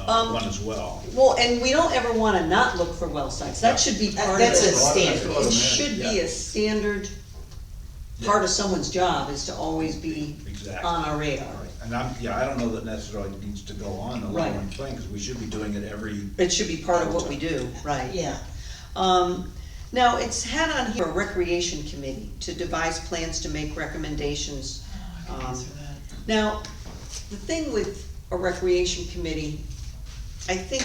Um, uh, one as well. Well, and we don't ever wanna not look for well sites, that should be part of That's a it. standard. It should be a Yeah. standard, part of someone's job is to always be Exactly. on our radar. And I'm, yeah, I don't know that necessarily it needs to go on the Right. long-run plan, because we should be doing it every, It should be part of what we do, right? Yeah, Um, now, it's had on here a recreation committee to devise plans to make recommendations. um, Now, the thing with a recreation committee, I think,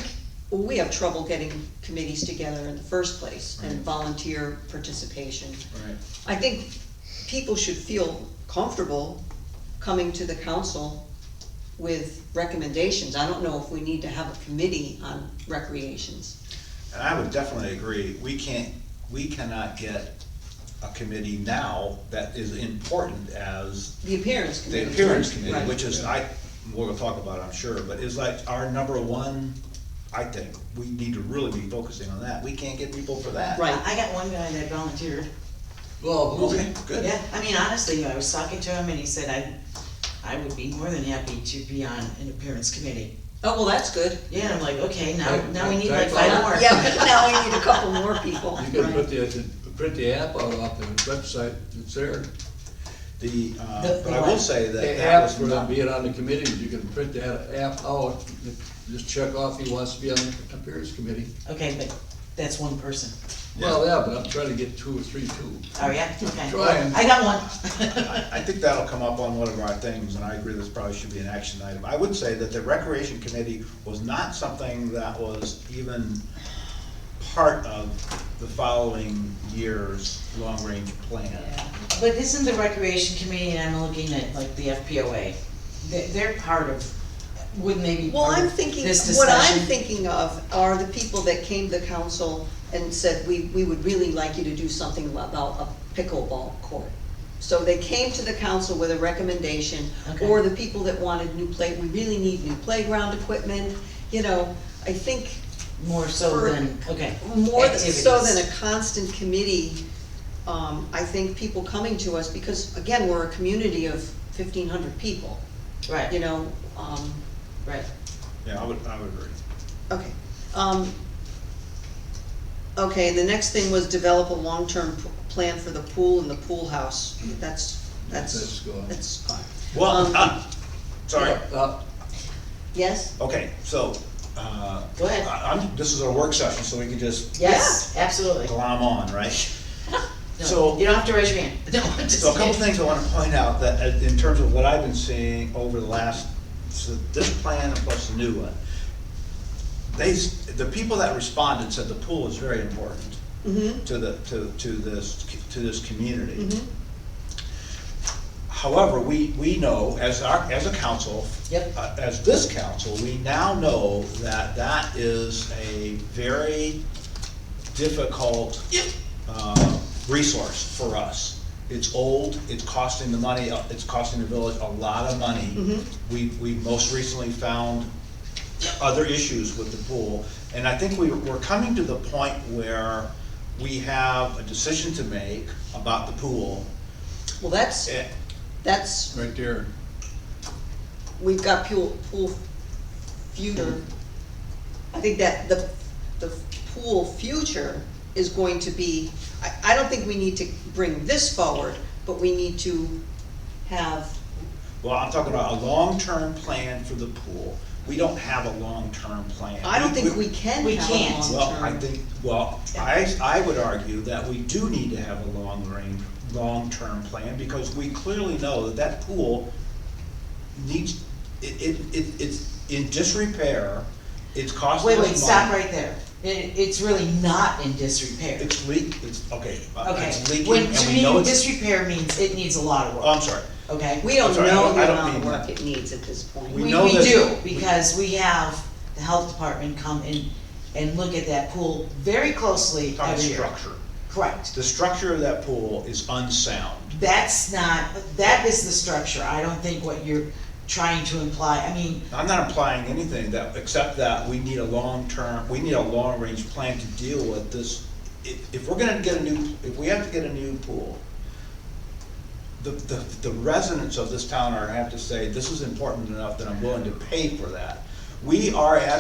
well, we have trouble getting committees together in the first place and Right. volunteer participation. right, I think people should feel comfortable coming to the council with recommendations. I don't know if we need to have a committee on recreations. And I would definitely agree, we can't, we cannot get a committee now that is important as The appearance committee. the appearance committee, Right. which is, I, we're gonna talk about it, I'm sure, but is like our number one, I think, we need to really be focusing on that, we can't get people for that. Right. I I got one guy that volunteered, Well, okay, good. yeah, I mean, honestly, I was talking to him and he said, I, I would be more than happy to be on an appearance committee. Oh, well, that's good. Yeah, and I'm like, okay, now, Right, now we need right, like five right. more. Yeah, but now we need a couple more people. You can put the, print the app out off the website, it's there. The, uh, The- but the I will what? say that The that app was for not, being on the committee, you can print that app out, just check off he wants to be on the appearance committee. Okay, but that's one person. Well, yeah, but I'm trying to get two or three too. Oh, yeah, okay. Trying. I got one. I, I think that'll come up on one of our things, and I agree this probably should be an action item. I would say that the recreation committee was not something that was even part of the following year's long-range plan. But isn't the recreation committee, and I'm looking at like the FPOA, they're, they're part of, wouldn't they be Well, part I'm of thinking, this what I'm discussion? thinking of are the people that came to council and said, we, we would really like you to do something about a pickleball court. So they came to the council with a recommendation, Okay. or the people that wanted new play, we really need new playground equipment, you know, I think More so for- than, okay. more th- so activities. than a constant committee, um, I think people coming to us, because again, we're a community of fifteen hundred people, you Right, know, um, right. Yeah, I would, I would agree. Okay, um, okay, and the next thing was develop a long-term p- plan for the pool and the pool house, that's, That's that's, gone. that's fine. Well, Um, uh, sorry, Uh, Yes, okay, so, uh. Go ahead. I- I'm, this is our work session, so we can just Yes, absolutely. glom on, right? No, So- You don't have to raise your hand. No, I'm just So a couple kidding. things I wanna point out, that uh, in terms of what I've been seeing over the last, so this plan and plus the new one, they, s- the people that responded said the pool is very important mm-hmm, to the, to, to this, to this community. mm-hmm, However, we, we know, as our, as a council. Yep. uh, As this council, we now know that that is a very difficult. uh, resource for us. It's old, it's costing the money, uh, it's costing the village a lot of money. Mhm. We, we most recently found other issues with the pool. And I think we, we're coming to the point where we have a decision to make about the pool. well, that's, Eh, that's, right there. we've got pool, pool future. I think that the, the pool future is going to be, I, I don't think we need to bring this forward, but we need to have, Well, I'm talking about a long-term plan for the pool. We don't have a long-term plan. I don't think we can We have a can't. long-term. Well, I think, well, I, I would argue that we do need to have a long range, long-term plan, because we clearly know that that pool needs, it, it, it- it's in disrepair, it's costing us Wait, money. wait, stop right there. It, it's really not in disrepair. It's leak, it's, okay, uh, Okay. it's leaking, When, and to we me, know it's, disrepair means it needs a lot of oh, I'm work, sorry, okay? We don't I'm sorry, I know don't- I the don't amount of mean work that. it needs at this point. We We, know we that- do, because we have the health department come in and look at that pool very closely talking every year. structure. Correct. The structure of that pool is unsound. That's not, that is the structure. I don't think what you're trying to imply, I mean, I'm not implying anything that, except that we need a long-term, we need a long-range plan to deal with this. If, if we're gonna get a new, if we have to get a new pool, the, the, the residents of this town are, have to say, this is important enough that I'm willing to pay for that. We are at